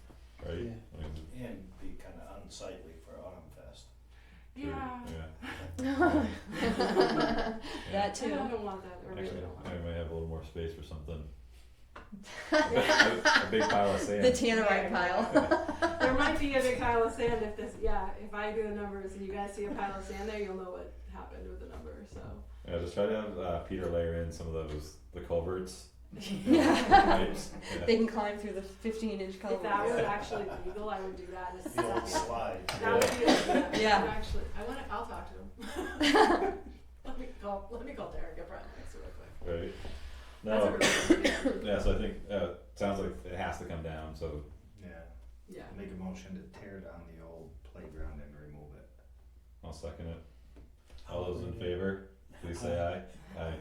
saw the Actually, original one. I might have a little more space for something. A big pile of The sand. tannerite pile. There might be a big pile of sand if this, yeah, if I do the numbers and you guys see a pile of sand there, you'll know what happened with the number, so. Yeah, just try to have uh, Peter layer in some of those, the culverts. Yeah. Pipes, yeah. They can climb through the fifteen inch If that culvert. was actually legal, I would do that. as a The old second. slide. That would be, a- Yeah. yeah, actually, I wanna, I'll talk to him. Let me call, let me call Derek at Brown next real quick. Right? That's a No, really good idea. yeah, so I think, uh, sounds like it has to come down, so, Yeah, Yeah, make a motion to tear down the old playground and remove it. I'll second it. All those in favor, please say aye. Aye.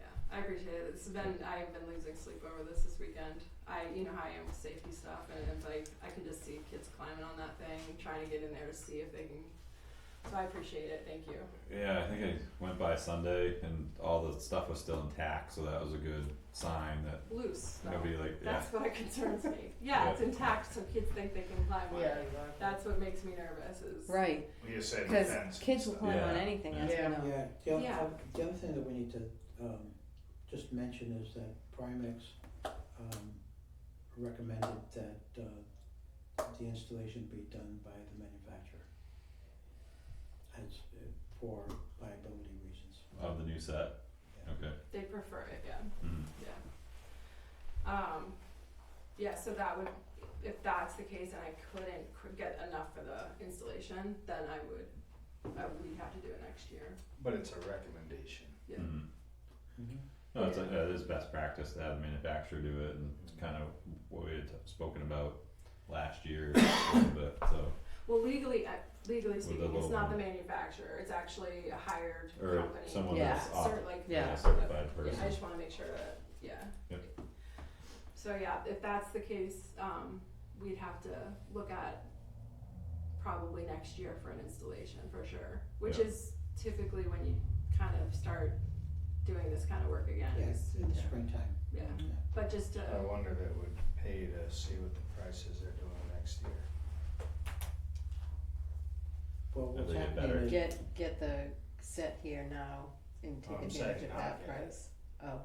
yeah, I appreciate it. It's been, I've been losing sleep over this this weekend. I, you know how I am with safety stuff and it's like, I can just see kids climbing on that thing, trying to get in there to see if they can. So I appreciate it, thank you. Yeah, I think I went by Sunday and all the stuff was still intact, so that was a good sign that Loose, though. nobody like, yeah, That's what concerns me. Yeah, it's intact, so kids think they can climb on it. That's what makes me nervous is. Right, We just said because fence. kids will climb on Yeah. anything, as we Yeah. know. Yeah, the other, Yeah. the other thing that we need to, um, just mention is that Primex, um, recommended that, uh, the installation be done by the manufacturer. As, uh, for liability reasons. of the new set. Okay. They prefer it, yeah. Mm. Yeah. Um, yeah, so that would, if that's the case and I couldn't cr- get enough for the installation, then I would, I would have to do it next year. But it's a recommendation. Yeah. Mm. Mhm. No, it's like, uh, it is best practice to have the manufacturer do it and it's kind of what we had spoken about last year a little bit, so. Well, legally, uh, legally With the speaking, it's low not the one. manufacturer, it's actually a hired Or company. someone Yeah. that's off, Cert- like, Yeah. yeah, certified Yeah, I person, just wanna make sure that, yeah. Yep. So yeah, if that's the case, um, we'd have to look at probably next year for an installation for sure, which Yeah. is typically when you kind of start doing this kind of work again. Yeah, is- in the springtime. Yeah, but just to, I wonder if it would pay to see what the prices are doing next year. Well, what's they get happening better. is. Get, get the set here now and take I'm advantage of saying that not yet. price. Oh,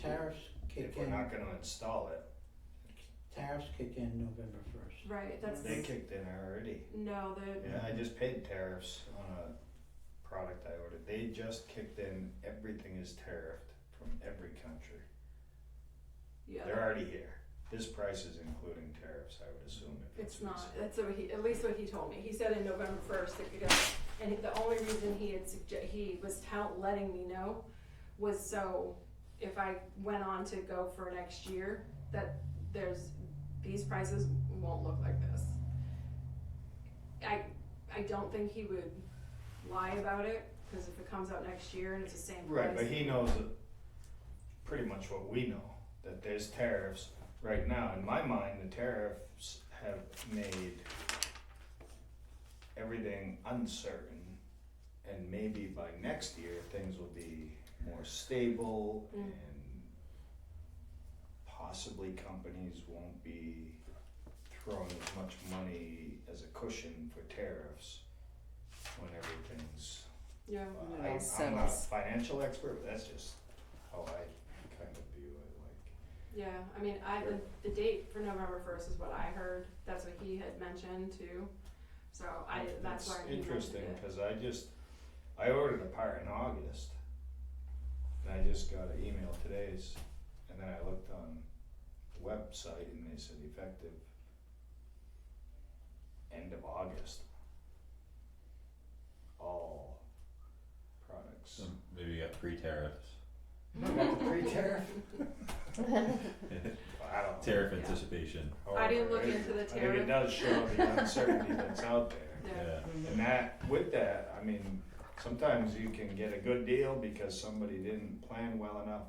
Tariffs kick If we're in, not gonna install it, tariffs kick in November first. right, that's, they kicked in already. no, the, Yeah, I just paid tariffs on a product I ordered. They just kicked in, everything is tariffed from every country. They're yeah, already here. This price is including tariffs, I would assume. if it's not, that's what he, at least what he told me, he said in November first, it could go, and the only reason he had sugge- he was tell- letting me know was so if I went on to go for next year, that there's these prices won't look like this. I I don't think he would lie about it because if it comes out next year and it's the same price, Right, but he knows that pretty much what we know, that there's tariffs right now. In my mind, the tariffs have made everything uncertain. And maybe by next year, things will be more stable Mm. and possibly companies won't be throwing as much money as a cushion for tariffs when everything's yeah, Well, I, I'm not a settles. financial expert, but that's just how I kind of view it, yeah. I mean, I the, the date for November first is what I heard. That's what he had mentioned too. So I like. that's why he mentioned Interesting, it. cause I just, I ordered a part in August, and I just got an email today's, and then I looked on the website and they said effective end of August. All products. so maybe you got pre-tariffs, Free tariff? I don't know. tariff Yeah. anticipation, Oh, I didn't look However, into the I think tariff. it does show the uncertainty that's out there. Yeah. yeah, And that, with that, I mean, sometimes you can get a good deal because somebody didn't plan well enough.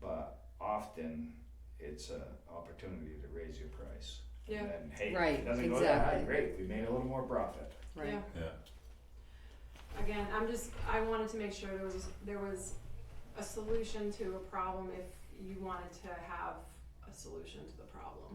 But often, it's an opportunity to raise your price. Yeah. And then, hey, if Right, it doesn't go that high, exactly. great, we made a little more profit. right. Yeah. yeah. Again, I'm just, I wanted to make sure there was, there was a solution to a problem if you wanted to have a solution to the problem.